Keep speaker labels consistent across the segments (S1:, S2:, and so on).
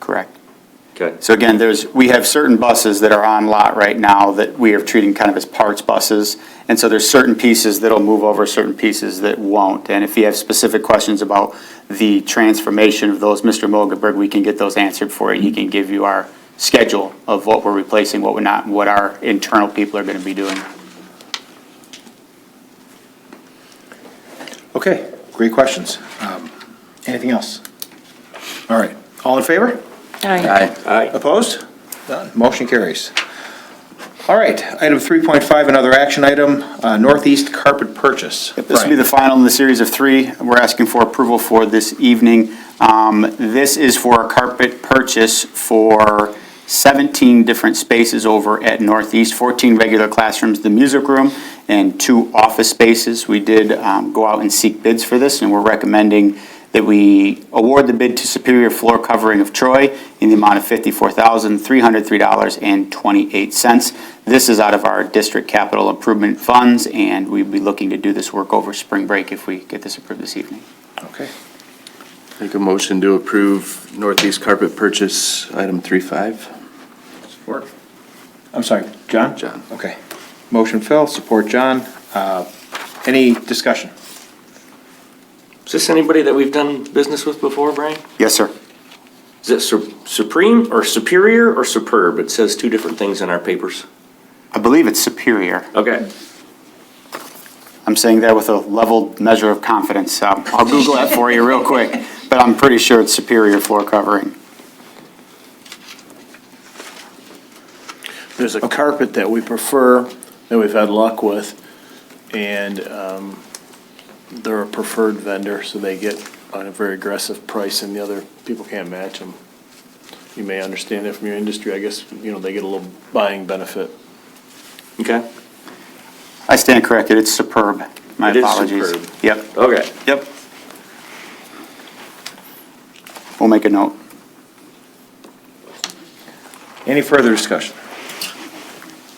S1: Correct.
S2: Okay,
S1: So again, there's, we have certain buses that are on lot right now that we are treating kind of as parts buses. And so there's certain pieces that'll move over, certain pieces that won't. And if you have specific questions about the transformation of those, Mr. Mogelberg, we can get those answered for you. He can give you our schedule of what we're replacing, what we're not, and what our internal people are going to be doing.
S3: Okay, great questions. Um, Anything else? All right, all in favor?
S4: Aye.
S3: Opposed? None. Motion carries. All right, item 3.5, another action item, uh, Northeast Carpet Purchase.
S1: This will be the final in the series of three we're asking for approval for this evening. Um, This is for a carpet purchase for 17 different spaces over at Northeast, 14 regular classrooms, the music room, and two office spaces. We did um, go out and seek bids for this, and we're recommending that we award the bid to Superior Floor Covering of Troy in the amount of $54,303.28. This is out of our district capital improvement funds, and we'd be looking to do this work over spring break if we get this approved this evening.
S3: Okay,
S4: Make a motion to approve Northeast carpet purchase, item three five.
S3: support. I'm sorry, John?
S4: John.
S3: Okay. Motion Phil, support John. Uh, Any discussion?
S2: is this anybody that we've done business with before, Brian?
S1: Yes, sir.
S2: Is it Su- Supreme or Superior or Superb? It says two different things in our papers.
S1: I believe it's Superior.
S2: Okay.
S1: I'm saying that with a leveled measure of confidence. Um, I'll Google that for you real quick, but I'm pretty sure it's Superior Floor Covering.
S5: There's a carpet that we prefer, that we've had luck with, and um, they're a preferred vendor, so they get on a very aggressive price, and the other people can't match them. You may understand that from your industry, I guess, you know, they get a little buying benefit.
S2: Okay.
S1: I stand corrected, it's Superb. My
S2: It is
S1: apologies.
S2: Superb.
S1: Yep,
S2: Okay.
S1: yep. We'll make a note.
S3: Any further discussion?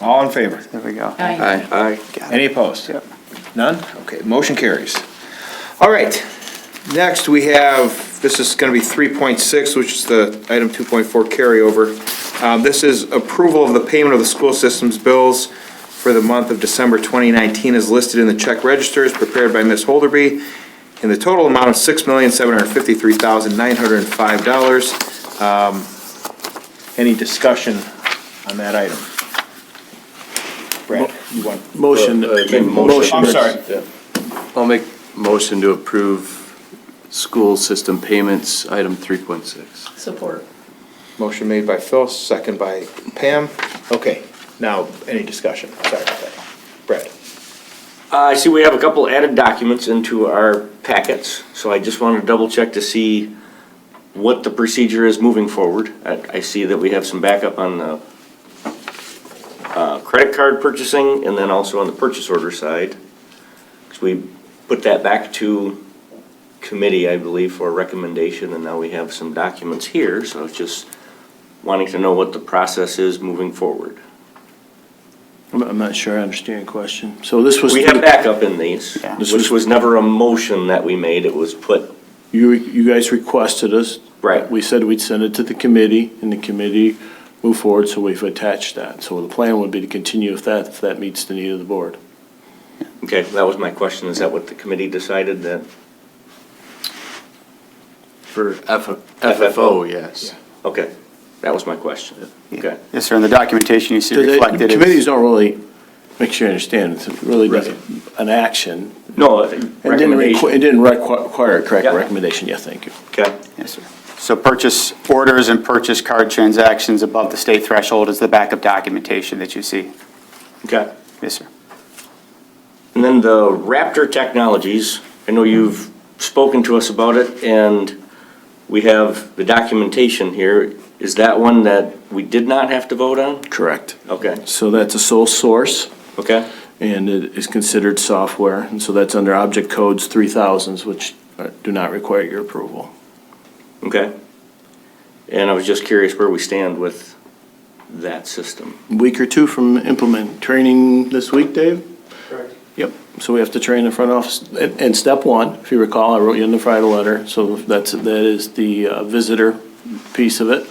S3: All in favor?
S1: There we go.
S4: Aye.
S2: Aye.
S3: Any opposed?
S1: Yep.
S3: None? Okay, motion carries. All right, next we have, this is going to be 3.6, which is the item 2.4 carryover. Um, This is approval of the payment of the school system's bills for the month of December 2019 as listed in the check registers prepared by Ms. Holderby in the total amount of $6,753,905. Um, Any discussion on that item? Brad, you want?
S5: Motion.
S4: Uh, I mean, motion.
S3: I'm sorry.
S4: I'll make motion to approve school system payments, item three point six.
S6: Support.
S3: Motion made by Phil, second by Pam. Okay, now, any discussion? Sorry about that. Brad?
S2: Uh, I see we have a couple added documents into our packets, so I just want to double check to see what the procedure is moving forward. I, I see that we have some backup on the uh, credit card purchasing and then also on the purchase order side. Because we put that back to committee, I believe, for a recommendation, and now we have some documents here, so I was just wanting to know what the process is moving forward.
S5: I'm- I'm not sure I understand your question. So this was.
S2: We have backup in these,
S1: Yeah.
S5: This
S2: which
S5: was-
S2: was never a motion that we made, it was put,
S5: You, you guys requested us.
S2: Right.
S5: We said we'd send it to the committee, and the committee moved forward, so we've attached that. So the plan would be to continue if that, if that meets the need of the board.
S2: okay, that was my question, is that what the committee decided that?
S4: For F- FFO, yes.
S2: Okay, that was my question, okay.
S1: Yes, sir, and the documentation you see
S5: So the
S1: reflected
S5: Committees
S1: is,
S5: don't really, make sure you understand, it's really just an action.
S2: No,
S5: It didn't requ-
S2: recommendation,
S5: It didn't requ- require a correct
S2: Yeah.
S5: recommendation, yeah, thank you.
S2: okay,
S1: yes, sir. So purchase orders and purchase card transactions above the state threshold is the backup documentation that you see.
S2: okay.
S1: Yes, sir.
S2: And then the Raptor Technologies, I know you've spoken to us about it, and we have the documentation here. Is that one that we did not have to vote on?
S5: Correct.
S2: Okay,
S5: So that's a sole source,
S2: okay,
S5: and it is considered software, and so that's under Object Codes 3000s, which uh, do not require your approval.
S2: okay. And I was just curious where we stand with that system.
S5: week or two from implement. Training this week, Dave? Yep, so we have to train the front office. And, and step one, if you recall, I wrote you in the Friday letter, so that's, that is the uh, visitor piece of it.